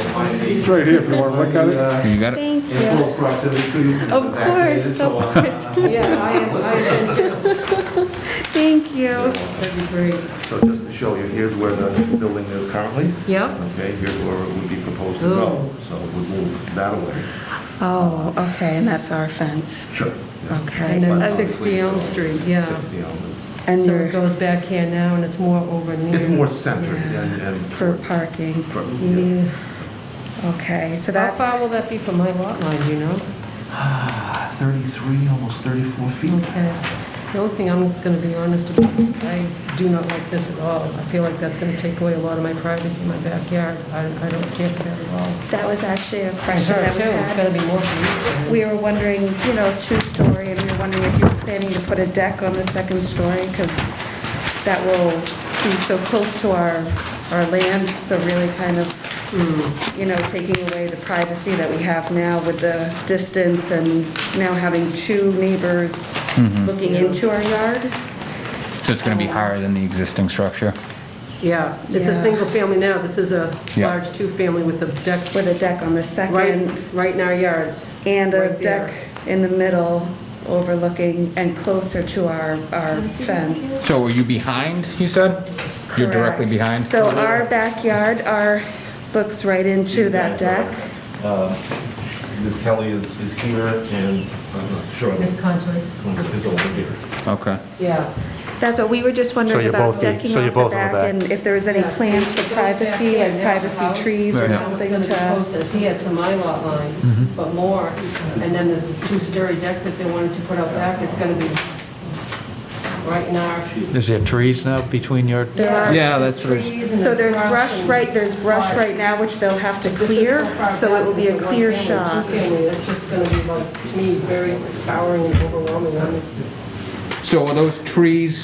It's right here if you want to look at it. And, uh, You got it? Thank In you. close proximity to you. Of course, of course. Yeah, I am, I am too. Thank you. That'd be great. So just to show you, here's where the building is currently, Yep. okay, here's where it would be proposed to go. Oh. So we move that away. Oh, okay, and that's our fence. Sure. Okay. And then But 60 Elm Street, yeah. 60 Elm is, And So it you're goes back here now, and it's more over near. it's more centered Yeah. and, and. for parking. for- yeah. Yeah. Okay, so How that's, far will that be from my lot line, do you know? Ah, 33, almost 34 feet. Okay. The only thing I'm going to be honest about is I do not like this at all. I feel like that's going to take away a lot of my privacy in my backyard. I I don't care for that at all. that was actually a For question sure, that too, we it's had. going to be more for you. We were wondering, you know, two-story, and we were wondering if you were planning to put a deck on the second story, because that will be so close to our, our land, so really kind Hmm. of, you know, taking away the privacy that we have now with the distance and now having two neighbors looking into our yard. So it's going to be higher than the existing structure? Yeah, it's a Yeah. single family now, this is a Yeah. large two-family with a deck with a deck on the right, second right in our yards. and a right there. deck in the middle overlooking and closer to our, our fence. So are you behind, you said? You're directly Correct. behind? So our backyard, our, looks right into that deck. Ms. Kelly is, is here and I'm not sure. Ms. Conjoyce. Is over here. Okay. Yeah. That's what, we were just So wondering you're about both the- decking so you're off the both back on the back. and if there was any Yes. plans for It goes back privacy, here like now, privacy house. trees or Yeah. So it's something going to be to, closer here to my lot Mm-hmm. line, but more, and then there's this two-story deck that they wanted to put out back, it's going to be right in our. Is there trees now between your, There are- Yeah, that's what I was- Trees and so there's brush and- right, there's brush right now, which they'll have to This is clear, far so it will be back, a it's clear one-family, shot. Two-family, that's just going to be like, to me, very towering and overwhelming. I mean, So are those trees?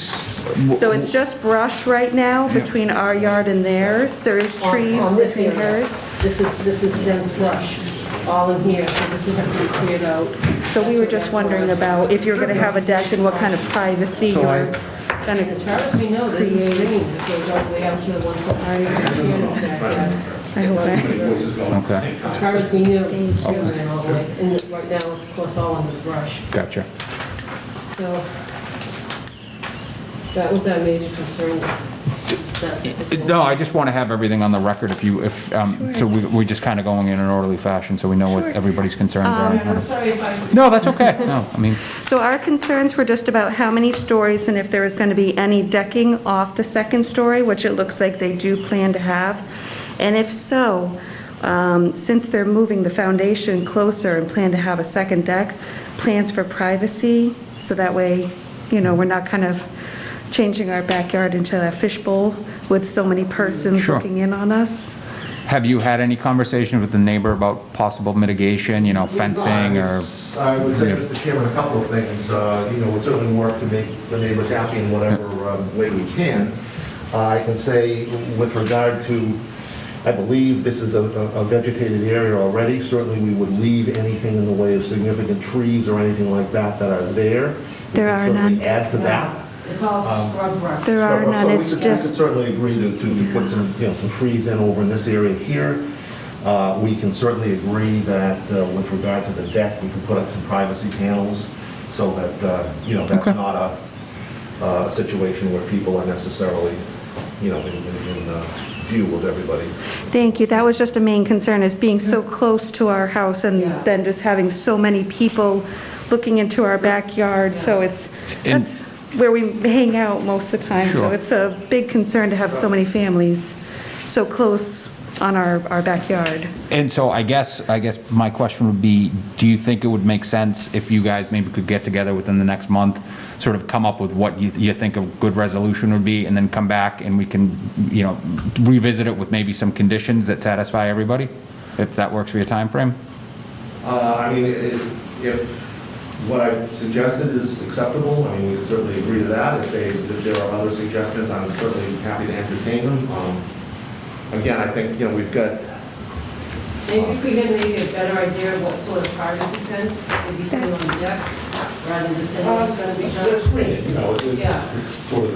So it's just brush right now between our yard and theirs. There is on- trees on this within area. hers. This is, this is dense brush, all in here, so this would have to be cleared out. So we were just wondering about if you're going to have a deck and what kind of privacy So I- you're going And as to... far as we know, there's a stream that goes all the way out to the one sorry, I hope I- Okay, As far as we know, the stream ran all the way, and right now, it's of course all under brush, gotcha. so that was our major concern, was that. No, I just want to have everything on the record if you, if, um, so we, we're just kind of going in an orderly fashion, so we know what Sure. Um, everybody's concerns are. Um, I'm sorry if I No, that's okay. No, I mean, So our concerns were just about how many stories and if there was going to be any decking off the second story, which it looks like they do plan to have. And if so, um, since they're moving the foundation closer and plan to have a second deck, plans for privacy, so that way, you know, we're not kind of changing our backyard into a fishbowl with so many persons Sure. looking in on us. have you had any conversations with the neighbor about possible mitigation, you know, fencing or? I would say, Yeah. Mr. Chairman, a couple of things. Uh, You know, we certainly work to make the neighbors happy in whatever um, way we can. Uh, I can say with regard to, I believe this is a a vegetated area already. Certainly, we would leave anything in the way of significant trees or anything like that that are there. We There can are certainly none. Add to that. It's all scrub brush. There are So- so none, we it's could- we could just, certainly agree to, to to put some, you know, some trees in over in this area here. Uh, We can certainly agree that uh, with regard to the deck, we can put up some privacy panels so that, uh, you know, that's not a uh, situation where people are necessarily, you know, in, in in, uh, view of everybody. thank you, that was just a main concern, is being so close to our house and Yeah. then just having so many people looking into our backyard, so it's, And- that's where we hang out most of the time, so Sure. it's a big concern to have so many families so close on our, our backyard. And so I guess, I guess my question would be, do you think it would make sense if you guys maybe could get together within the next month, sort of come up with what you, you think a good resolution would be, and then come back and we can, you know, revisit it with maybe some conditions that satisfy everybody? If that works for your timeframe? Uh, I mean, i- if what I suggested is acceptable, I mean, we certainly agree to that. If they, if there are other suggestions, I'm certainly happy to entertain them. Um, Again, I think, you know, we've got, Maybe if we had maybe a better idea of what sort of privacy fence would be put on the deck, rather than just saying it's going to be done. it's screened, you know, it's Yeah. it's sort of